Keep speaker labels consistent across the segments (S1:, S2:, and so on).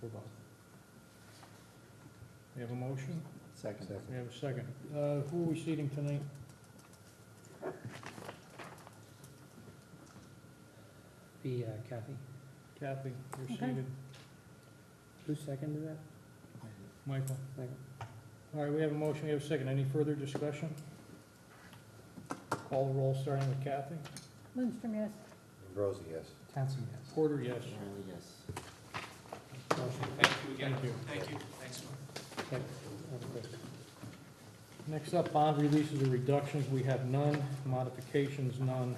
S1: for both.
S2: We have a motion,
S1: Second.
S2: we have a second. Uh, who are we seating tonight?
S3: Be uh, Kathy.
S2: Kathy, you're
S4: Okay.
S2: seated.
S3: Who seconded that?
S2: Michael?
S3: Second.
S2: All right, we have a motion, we have a second. Any further discussion? Call the roll, starting with Kathy.
S4: Lindstrom, yes.
S5: Ambrosi, yes.
S1: Townsend, yes.
S2: Porter, yes.
S5: Riley, yes.
S6: Thank you again.
S2: Thank you.
S6: Thank you. Thanks, Norm.
S2: Next up, bond releases or reductions, we have none, modifications, none,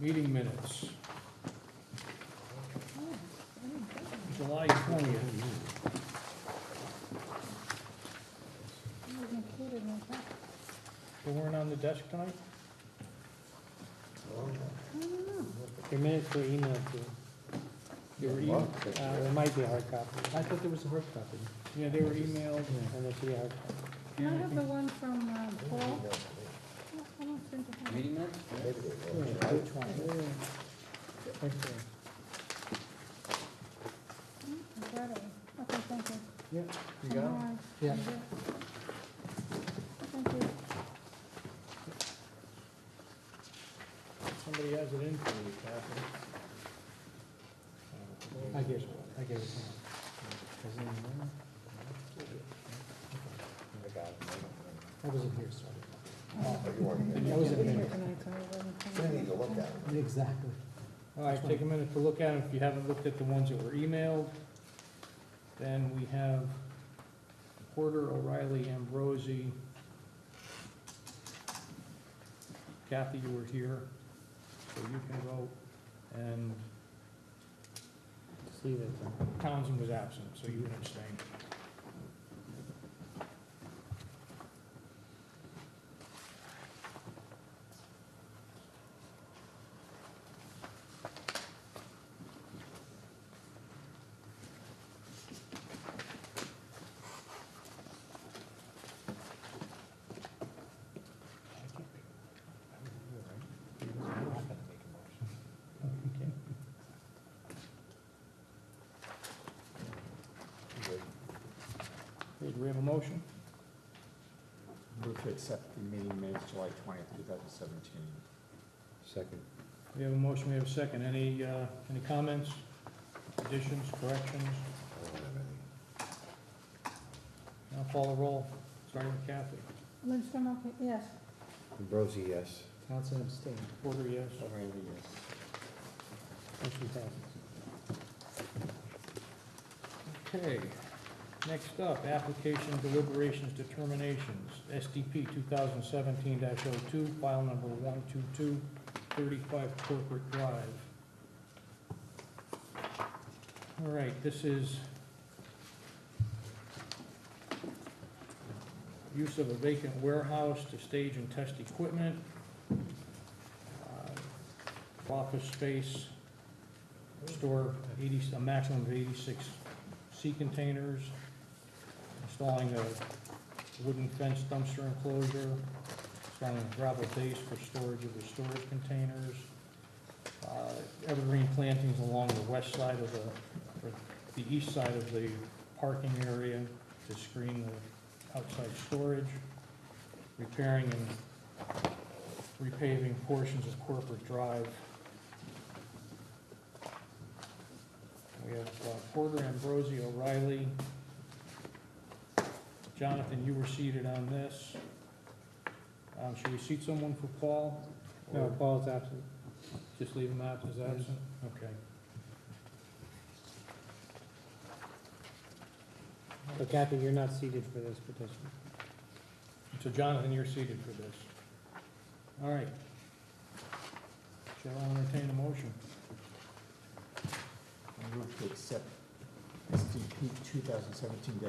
S2: meeting minutes,
S4: Oh, I didn't get them.
S2: July twentieth.
S4: It was included in the packet.
S2: They weren't on the desk tonight?
S4: I don't know.
S3: Your minutes were emailed to, you.
S2: They were
S5: Well,
S2: emailed,
S5: that's
S3: uh,
S5: right.
S3: there might be a hard copy,
S1: I thought there was a hard copy.
S2: yeah, they were emailed.
S3: and there should be a hard copy.
S4: Can I
S2: Yeah, I
S4: have the
S2: think-
S4: one from uh, Paul? No, I don't think I have it.
S5: Maybe they will.
S3: Which one? Okay.
S4: Mm, I got it. Okay, thank you.
S1: Yeah,
S4: I know I-
S1: Yeah.
S4: Thank you.
S2: Somebody has it in for you, Kathy.
S1: I gave it, I gave it. to him. Is it in there?
S5: I got it.
S1: I wasn't here, sorry.
S5: Oh, you weren't
S1: I
S5: there.
S1: wasn't
S4: Didn't
S1: here.
S4: hear tonight, so I wasn't
S5: I
S4: thinking.
S5: need to look at it.
S1: Exactly.
S2: All right, take a minute to look at it, if you haven't looked at the ones that were emailed. Then we have Porter, O'Reilly, Ambrosi. Kathy, you were here, so you can vote, and
S3: Just leave it then.
S2: Townsend was absent, so you would abstain. Okay, Do we have a motion?
S7: Move to accept the meeting minutes July twentieth, two thousand seventeen.
S5: Second.
S2: We have a motion, we have a second. Any, uh, any comments, additions, corrections?
S5: I don't have any.
S2: Now call the roll, starting with Kathy.
S4: Lindstrom, okay, yes.
S5: Ambrosi, yes.
S1: Townsend abstained.
S2: Porter, yes.
S5: Riley, yes.
S3: Motion passes.
S2: Okay. Next up, application deliberations determinations, SDP 2017-02, file number 12235 Corporate Drive. All right, this is use of a vacant warehouse to stage and test equipment, uh, office space, store 80, a maximum of 86 sea containers, installing a wooden fence dumpster enclosure, installing a gravel base for storage of the storage containers, uh, evergreen plantings along the west side of the, or the east side of the parking area to screen the outside storage, repairing and repaving portions of Corporate Drive. We have uh, Porter, Ambrosi, O'Reilly. Jonathan, you were seated on this. Um, Should we seat someone for Paul?
S3: No,
S2: Or
S3: Paul's absent.
S2: Just leave him out as absent? Okay.
S3: So Kathy, you're not seated for this petition.
S2: So Jonathan, you're seated for this. All right. Shall I entertain a motion?
S7: Move to accept SDP two thousand seventeen 2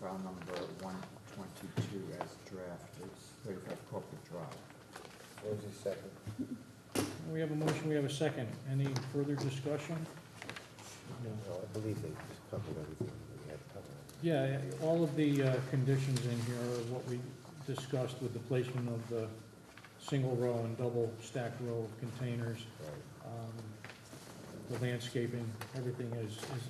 S7: file number one twenty-two as drafted, thirty-five Corporate Drive.
S5: Ambrosi, second.
S2: We have a motion, we have a second. Any further discussion? No.
S5: No, I believe they just covered everything that we had to cover.
S2: Yeah, all of the uh, conditions in here are what we discussed with the placement of the single row and double stacked row of containers,
S5: Right.
S2: um, the landscaping, everything is, is